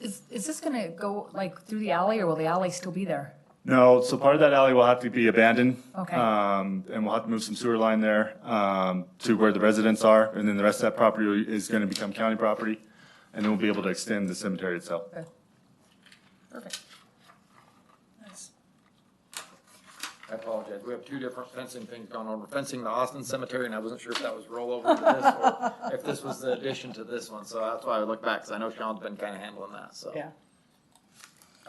Is, is this gonna go like through the alley or will the alley still be there? No, so part of that alley will have to be abandoned. Okay. Um, and we'll have to move some sewer line there, um, to where the residents are, and then the rest of that property is gonna become county property. And then we'll be able to extend the cemetery itself. Okay. Perfect. Nice. I apologize. We have two different fencing things going on. We're fencing the Austin Cemetery, and I wasn't sure if that was rollover to this or if this was the addition to this one. So that's why I look back, because I know Sean's been kind of handling that, so. Yeah.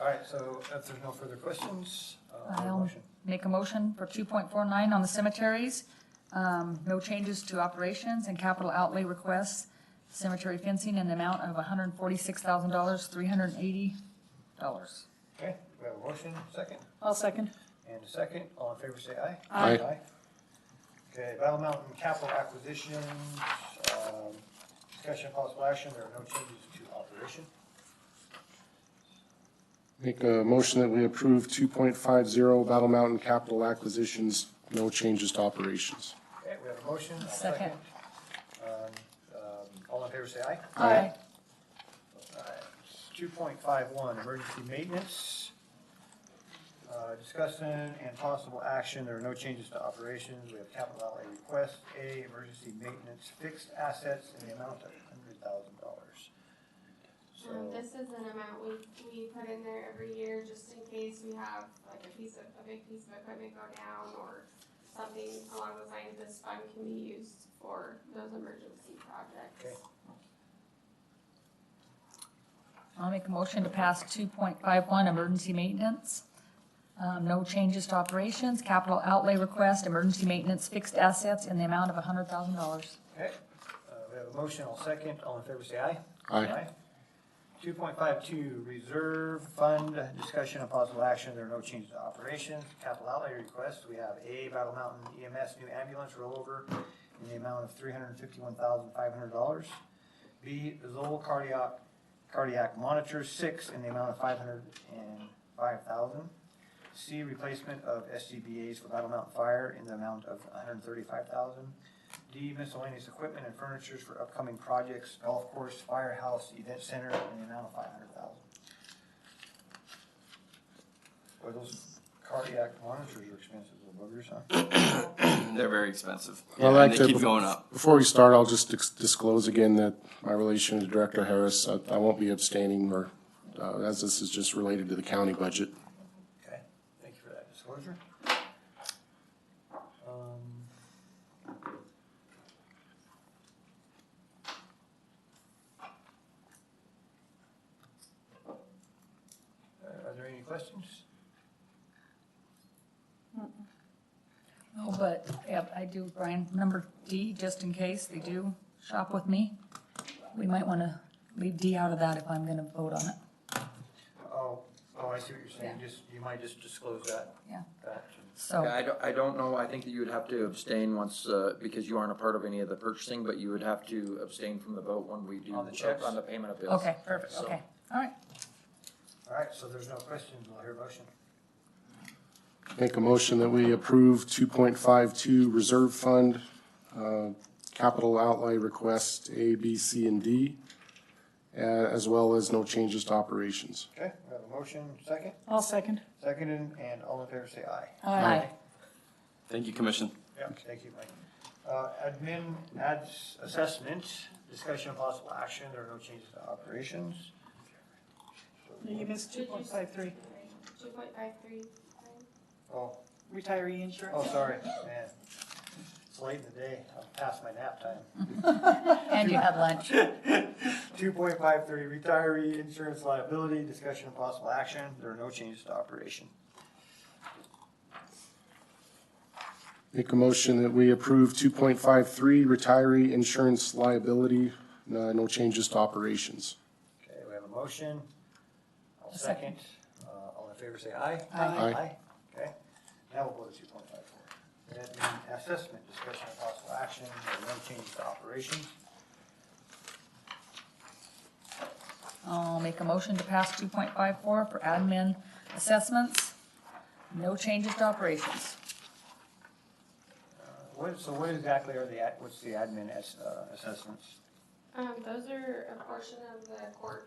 All right, so if there's no further questions, uh, I'll motion. Make a motion for two point four nine on the cemeteries. Um, no changes to operations and capital outlay requests. Cemetery fencing in the amount of hundred and forty-six thousand dollars, three hundred and eighty dollars. Okay, we have a motion, second, I'll second. and a second. All in favor, say aye. Aye. Okay, Battle Mountain Capital Acquisitions, um, discussion of possible action, there are no changes to operation. Make a motion that we approve two point five zero Battle Mountain capital acquisitions, no changes to operations. Okay, we have a motion, a second. Second. Um, um, All in favor, say aye. Aye. Two point five one, emergency maintenance. Uh, Discussing and possible action, there are no changes to operations, we have capital outlay request, A, emergency maintenance fixed assets in the amount of hundred thousand dollars. Um, So, this is an amount we, we put in there every year just in case we have like a piece of, a big piece of equipment go down or something along those lines, this fund can be used for those emergency Okay. projects. I'll make a motion to pass two point five one, emergency maintenance. Um, no changes to operations, capital outlay request, emergency maintenance fixed assets in the amount of hundred thousand dollars. okay, uh, we have a motion, I'll second, all in favor, say aye. Aye. Two point five two, reserve fund, discussion of possible action, there are no changes to operations. Capital outlay request, we have A, Battle Mountain EMS new ambulance rollover in the amount of three hundred and fifty-one thousand five hundred dollars. B, Zoll cardiac, cardiac monitor six in the amount of five hundred and five thousand. C, replacement of SCBA's for Battle Mountain Fire in the amount of one hundred and thirty-five thousand. D miscellaneous equipment and furnitures for upcoming projects, golf course, firehouse, event center, in the amount of five hundred thousand. Boy, those cardiac monitors are expensive, little buggers, huh? They're very expensive. I And like they that keep bef- going up. Before we start, I'll just dis- disclose again that my relation to Director Harris, I, I won't be abstaining or, uh, as this is just related to the county budget. Okay, thank you for that disclosure. Um, uh, Are there any questions? Oh, but, yeah, I do, Brian, number D, just in case they do shop with me. We might wanna leave D out of that if I'm gonna vote on it. Oh, oh, I see what you're saying, Yeah. just, you might just disclose that. Yeah. That. Yeah, Oh. So, I don't, I don't know. I think that you would have to abstain once, uh, because you aren't a part of any of the purchasing, but you would have to abstain from the vote when we do. On the checks? On the payment of bills. okay, perfect, So- okay, all right. All right, so there's no questions, we'll hear a motion. Make a motion that we approve two point five two reserve fund, uh, capital outlay request A, B, C, and D, uh, as well as no changes to operations. Okay, we have a motion, second, I'll second. seconded, and all in favor say aye. Aye. Thank you, Commission. Yeah. Thank you, Mike. Uh, admin ads assessment, discussion of possible action, there are no changes to operations. You missed two point five three, Two point five three, Oh, retiree insurance. oh, sorry, man. It's late in the day, I'm past my nap time. And you had lunch. Two point five three, retiree insurance liability, discussion of possible action, there are no changes to operation. Make a motion that we approve two point five three retiree insurance liability, no, no changes to operations. Okay, we have a motion. I'll A second. second. Uh, all in favor, say aye. Aye. Aye. Okay, now we'll go to two point five four. Admin assessment, discussion of possible action, there are no changes to operations. I'll make a motion to pass two point five four for admin assessments. No changes to operations. Uh, What, so what exactly are the, ad- what's the admin as, uh, assessments? um, those are a portion of the court